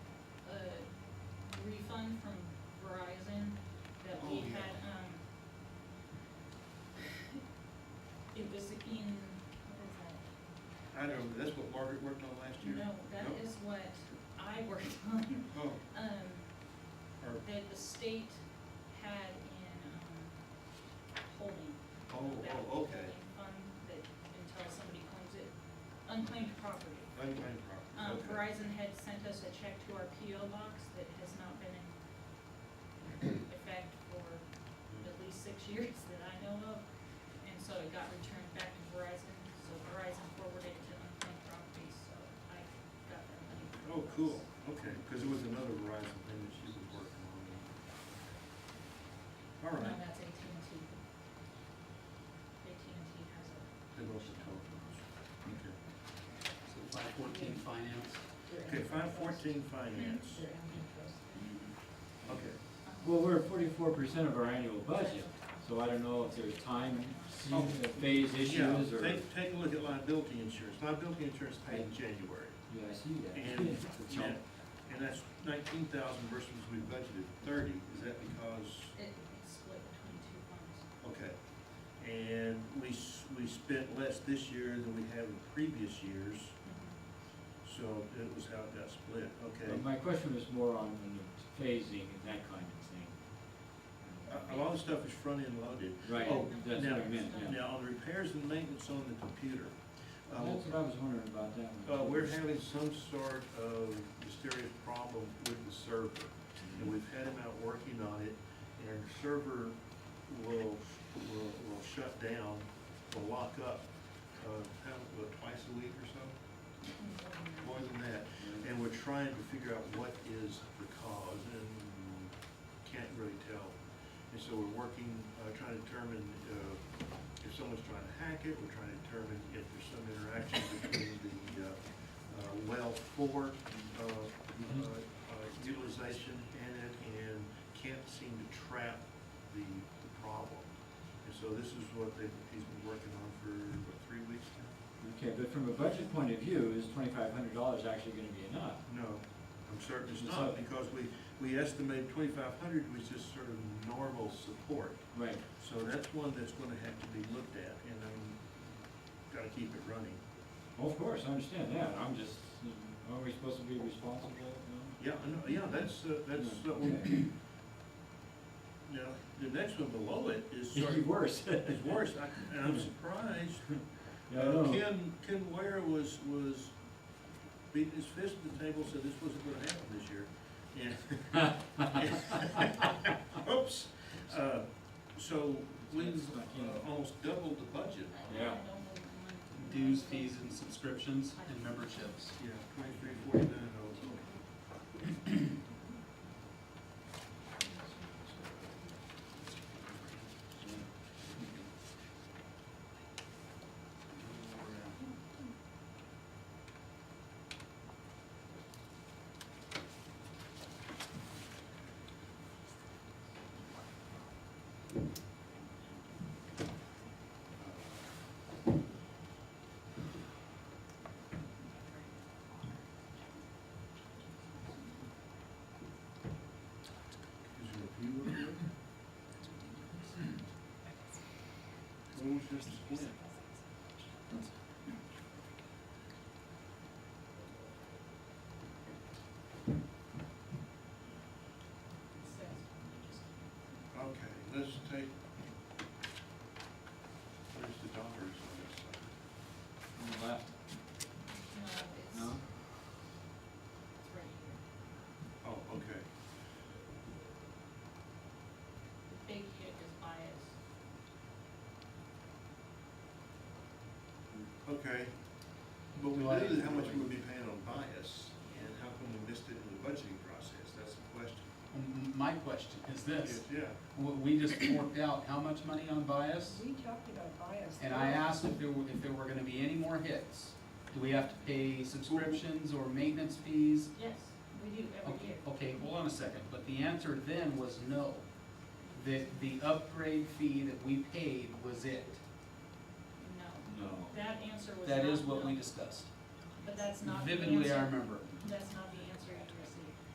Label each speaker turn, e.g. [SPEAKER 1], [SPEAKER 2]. [SPEAKER 1] Oh,
[SPEAKER 2] um, was in, what
[SPEAKER 1] I know, but that's what Margaret worked on last
[SPEAKER 2] is that?
[SPEAKER 1] year.
[SPEAKER 2] No, that is what I worked on.
[SPEAKER 1] Oh,
[SPEAKER 2] Um,
[SPEAKER 1] or,
[SPEAKER 2] that the state had in, um, holding.
[SPEAKER 1] oh,
[SPEAKER 2] that
[SPEAKER 1] oh,
[SPEAKER 2] holding
[SPEAKER 1] okay,
[SPEAKER 2] Fund that until somebody claims it, unclaimed property.
[SPEAKER 1] unclaimed
[SPEAKER 2] Um,
[SPEAKER 1] property, okay.
[SPEAKER 2] Verizon had sent us a check to our PO box that has not been in effect for at
[SPEAKER 1] Mm-hmm.
[SPEAKER 2] least six years that I know of. And so it got returned back to Verizon, so Verizon forwarded it to unclaimed properties, so I got that money. from
[SPEAKER 1] Oh,
[SPEAKER 2] Verizon.
[SPEAKER 1] cool, okay, because it was another Verizon thing that she was working on. All
[SPEAKER 2] No,
[SPEAKER 1] right,
[SPEAKER 2] that's AT&T. AT&T has a,
[SPEAKER 1] they both are talking, okay.
[SPEAKER 3] So five fourteen finance,
[SPEAKER 1] Okay, five fourteen finance, okay.
[SPEAKER 4] Well, we're at forty-four percent of our annual budget, so I don't know if there's time
[SPEAKER 1] Oh.
[SPEAKER 4] phase
[SPEAKER 1] Yeah,
[SPEAKER 4] issues or.
[SPEAKER 1] take, take a look at liability insurance, liability insurance paid in January,
[SPEAKER 4] Yeah, I see that.
[SPEAKER 1] and,
[SPEAKER 4] It's all-
[SPEAKER 1] and and that's nineteen thousand versus we budgeted thirty, is that because?
[SPEAKER 2] it- it's split between two funds.
[SPEAKER 1] Okay, and we, s- we spent less this year than we have in previous years, so it was how it got split, okay.
[SPEAKER 4] But my question was more on the phasing and that kind of thing.
[SPEAKER 1] A, a lot of stuff is front-end loaded. Uh, Oh,
[SPEAKER 4] That's what I
[SPEAKER 1] now-
[SPEAKER 4] meant, yeah.
[SPEAKER 1] Now, on the repairs and maintenance on the computer, uh,
[SPEAKER 4] That's what I was wondering about that one.
[SPEAKER 1] uh, we're having some sort of mysterious problem with the server. And we've had him out working on it, and our server will, will, will shut down, will lock up, uh, how, what, twice a week or so? More than that, and we're trying to figure out what is the cause, and can't really tell. And so we're working, uh, trying to determine, uh, if someone's trying to hack it, we're trying to determine if there's some interaction between the, uh, uh, well for, uh, uh, uh, utilization in it, and can't seem to trap the, the problem. And so this is what they, he's been working on for, what, three weeks now?
[SPEAKER 4] Okay, but from a budget point of view, is twenty-five hundred dollars actually gonna be enough?
[SPEAKER 1] No, I'm certain it's
[SPEAKER 4] It's
[SPEAKER 1] not,
[SPEAKER 4] not.
[SPEAKER 1] because we, we estimated twenty-five hundred was just sort of normal support.
[SPEAKER 4] Right.
[SPEAKER 1] So that's one that's gonna have to be looked at, and I'm, gotta keep it running.
[SPEAKER 4] Of course, I understand that, I'm just, you know, aren't we supposed to be responsible, no?
[SPEAKER 1] Yeah, I know, yeah, that's, uh, that's, uh,
[SPEAKER 4] Okay.
[SPEAKER 1] now, the next one below it is sort
[SPEAKER 4] It'd be
[SPEAKER 1] of,
[SPEAKER 4] worse.
[SPEAKER 1] is worse, I- and I'm surprised.
[SPEAKER 4] Yeah, I
[SPEAKER 1] Uh,
[SPEAKER 4] know.
[SPEAKER 1] Ken, Ken Ware was, was beating his fist at the table, said this wasn't gonna happen this year. Yeah. Oops, uh, so we
[SPEAKER 4] That's not Ken.
[SPEAKER 1] uh, almost doubled the budget.
[SPEAKER 4] Yeah.
[SPEAKER 3] dues, fees, and subscriptions, and memberships.
[SPEAKER 1] Yeah, twenty-three forty-nine oh. Is there a few of them? What was just split? Okay, let's take, there's the dollars on this side.
[SPEAKER 4] On the left,
[SPEAKER 2] No,
[SPEAKER 4] no?
[SPEAKER 2] it's, it's right here.
[SPEAKER 1] Oh, okay.
[SPEAKER 2] The big hit is bias.
[SPEAKER 1] Okay, but we
[SPEAKER 3] Why-
[SPEAKER 1] knew that how much we would be paying on bias, and how come we missed it in the budgeting process, that's the question.
[SPEAKER 3] And My question is this,
[SPEAKER 1] Yeah,
[SPEAKER 3] w- we just worked out how much money on bias?
[SPEAKER 5] We talked about bias.
[SPEAKER 3] And I asked if there were, if there were gonna be any more hits. Do we have to pay subscriptions or maintenance fees?
[SPEAKER 2] Yes, we do every
[SPEAKER 3] Okay,
[SPEAKER 2] year.
[SPEAKER 3] okay, hold on a second, but the answer then was no. That the upgrade fee that we paid was it.
[SPEAKER 2] No,
[SPEAKER 4] No.
[SPEAKER 2] that answer was not.
[SPEAKER 3] That is what
[SPEAKER 2] no,
[SPEAKER 3] we discussed.
[SPEAKER 2] But that's not the answer.
[SPEAKER 3] Vividly, I remember.
[SPEAKER 2] That's not the